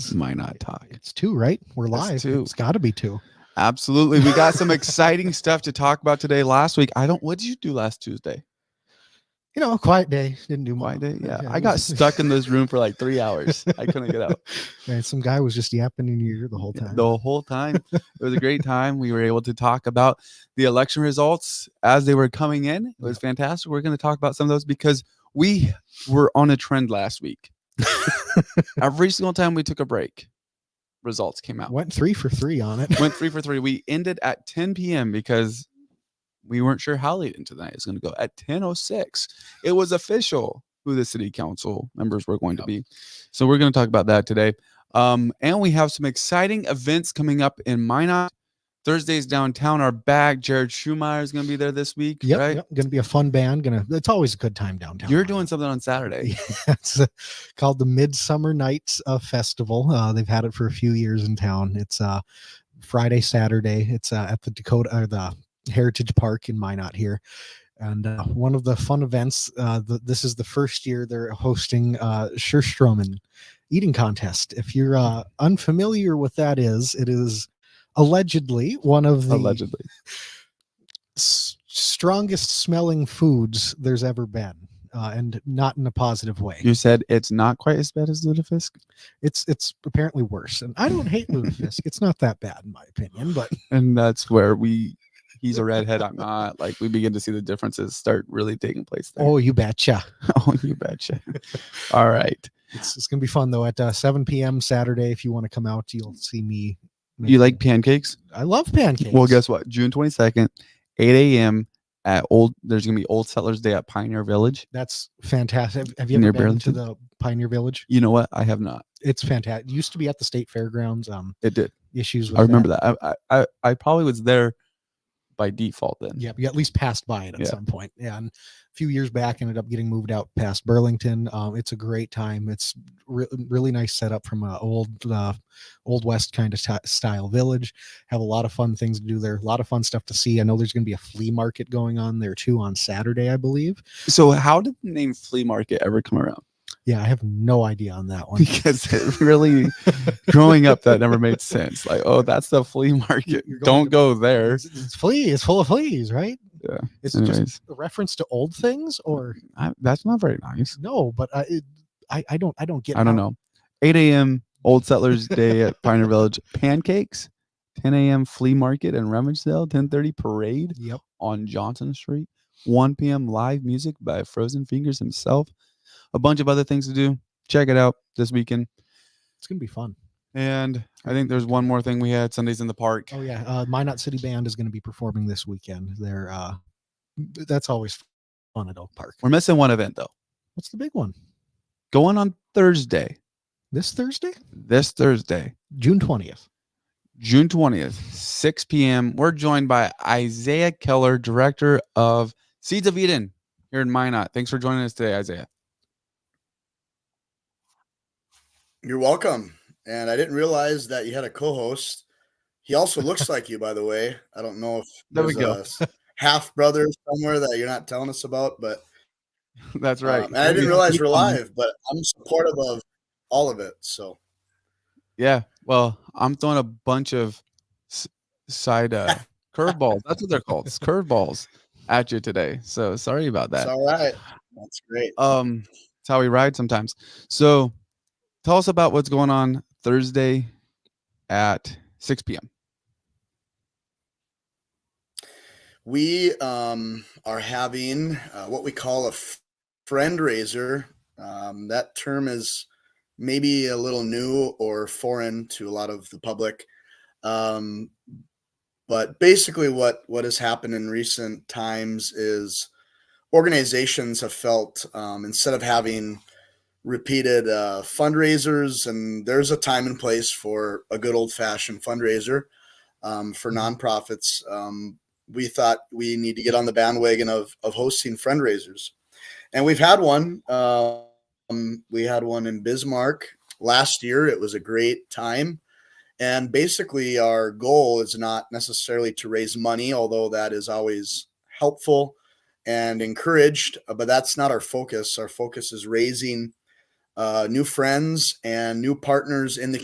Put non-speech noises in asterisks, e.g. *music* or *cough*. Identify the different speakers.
Speaker 1: Might not talk.
Speaker 2: It's two, right? We're
Speaker 1: It's
Speaker 2: live.
Speaker 1: two.
Speaker 2: It's got to be two.
Speaker 1: Absolutely. We got some exciting stuff to talk about today. Last week, I don't. What did you do last Tuesday?
Speaker 2: You know, a quiet day. Didn't do
Speaker 1: Why
Speaker 2: much.
Speaker 1: did? Yeah,
Speaker 2: yeah,
Speaker 1: I
Speaker 2: it
Speaker 1: got
Speaker 2: was- *laughs*
Speaker 1: stuck in this room for like three hours. I couldn't get out
Speaker 2: And some guy was just yapping in your ear the whole time.
Speaker 1: the whole time. It was a great time. We were able to talk about the election results as they were coming in. It was fantastic. We're going to talk about some of those because we were on a trend
Speaker 2: *laughs*
Speaker 1: last week. Every single time we took a break, results came out.
Speaker 2: Went three for three on
Speaker 1: *laughs*
Speaker 2: it.
Speaker 1: went three for three. We ended at 10 p.m. because we weren't sure how late into the night it was going to go. At 10:06, it was official who the city council members were going to be. So we're going to talk about that today. Um, and we have some exciting events coming up in Minot. Thursdays downtown are back. Jared Schumeyer is going to be there this week,
Speaker 2: Yep,
Speaker 1: right?
Speaker 2: yep. Going to be a fun band. Going to. It's always a good time downtown.
Speaker 1: You're
Speaker 2: Minot.
Speaker 1: doing something on Saturday.
Speaker 2: it's uh, called the Midsummer Nights uh, Festival. Uh, they've had it for a few years in town. It's uh, Friday, Saturday. It's uh, at the Dakota or the Heritage Park in Minot here. And uh, one of the fun events, uh, the, this is the first year they're hosting uh, Schurstromen eating contest. If you're uh, unfamiliar with that is, it is allegedly one of the
Speaker 1: Allegedly,
Speaker 2: s- strongest smelling foods there's ever been, uh, and not in a positive way
Speaker 1: you said it's not quite as bad as Ludafisk.
Speaker 2: it's it's apparently worse. And I don't hate
Speaker 1: *laughs*
Speaker 2: Ludafisk. it's not that bad in my opinion, but
Speaker 1: and that's where we he's a
Speaker 2: *laughs*
Speaker 1: redhead i'm not like we begin to see the differences start really taking place there.
Speaker 2: oh, you betcha.
Speaker 1: *laughs* oh you betcha
Speaker 2: *laughs*
Speaker 1: all right
Speaker 2: It's, it's gonna be fun though. At uh, 7 p.m. Saturday, if you want to come out, you'll see me.
Speaker 1: you like
Speaker 2: making-
Speaker 1: pancakes
Speaker 2: I love pancakes.
Speaker 1: well guess what june 22nd 8 a.m at old there's gonna be old settlers day at pioneer village
Speaker 2: that's fantastic. Have- Have you
Speaker 1: Near
Speaker 2: ever been to the Pioneer Village?
Speaker 1: you know what i have not
Speaker 2: It's fantastic. It used to be at the state fairgrounds. Um,
Speaker 1: it did
Speaker 2: issues. With
Speaker 1: i remember that, I, I i i probably was there by default then
Speaker 2: Yeah, you at least passed by it at
Speaker 1: Yeah.
Speaker 2: some point. Yeah, and a few years back, ended up getting moved out past Burlington. Um, it's a great time. It's re- really nice setup from a old, uh, old west kind of ti- style village. Have a lot of fun things to do there. A lot of fun stuff to see. I know there's going to be a flea market going on there too on Saturday, I believe.
Speaker 1: so how did the name flea market ever come around
Speaker 2: Yeah, I have no idea on that
Speaker 1: *laughs*
Speaker 2: one.
Speaker 1: because
Speaker 2: *laughs*
Speaker 1: it really growing up that never made sense like oh that's the flea market
Speaker 2: you're going
Speaker 1: don't
Speaker 2: to-
Speaker 1: go there
Speaker 2: It's, it's flea. It's full of fleas, right?
Speaker 1: Yeah.
Speaker 2: It's just
Speaker 1: Anyways,
Speaker 2: a reference to old things, or
Speaker 1: I, that's not very nice.
Speaker 2: no? But I, it, I, I don't, I don't get.
Speaker 1: I don't
Speaker 2: how-
Speaker 1: know. 8 a.m. Old Settlers Day at Pioneer Village. *laughs* Pancakes. 10 a.m. Flea Market and Rummage Sale. 10:30 Parade
Speaker 2: Yep.
Speaker 1: on Johnson Street. 1 p.m. Live music by Frozen Fingers himself. A bunch of other things to do. Check it out this weekend.
Speaker 2: It's gonna be fun.
Speaker 1: And I think there's one more thing we had Sundays in the Park.
Speaker 2: Oh yeah, uh, Minot City Band is going to be performing this weekend. They're uh, th- that's always fun at Oak Park.
Speaker 1: We're missing one event though.
Speaker 2: What's the big one?
Speaker 1: Going on Thursday,
Speaker 2: This Thursday,
Speaker 1: this Thursday,
Speaker 2: June twentieth.
Speaker 1: June 20th, 6 p.m. We're joined by Isaiah Keller, director of Seeds of Eden here in Minot. Thanks for joining us today, Isaiah.
Speaker 3: You're welcome. And I didn't realize that you had a co-host. He also looks like you, by the way. I don't know if
Speaker 1: There we
Speaker 3: there's a half brother somewhere that you're not telling us about, but
Speaker 1: That's
Speaker 3: um, and I
Speaker 2: Yeah.
Speaker 3: didn't realize we're
Speaker 2: Um,
Speaker 3: live, but I'm supportive of all of it. So
Speaker 1: Yeah. Well, I'm throwing a bunch of s- side
Speaker 3: *laughs*
Speaker 1: uh, curveballs. That's what they're called. It's curveballs at you today. So sorry about that.
Speaker 3: it's all right. That's great.
Speaker 1: Um, it's how we ride sometimes. So tell us about what's going on Thursday at 6 p.m.
Speaker 3: we um, are having uh, what we call a f- friend raiser. Um, that term is maybe a little new or foreign to a lot of the public. Um, but basically, what what has happened in recent times is organizations have felt um, instead of having repeated uh, fundraisers, and there's a time and place for a good old fashioned fundraiser um, for nonprofits, um, we thought we need to get on the bandwagon of of hosting fundraisers, and we've had one. Um, we had one in Bismarck last year. It was a great time, and basically our goal is not necessarily to raise money, although that is always helpful and encouraged. uh, But that's not our focus. Our focus is raising uh, new friends and new partners in the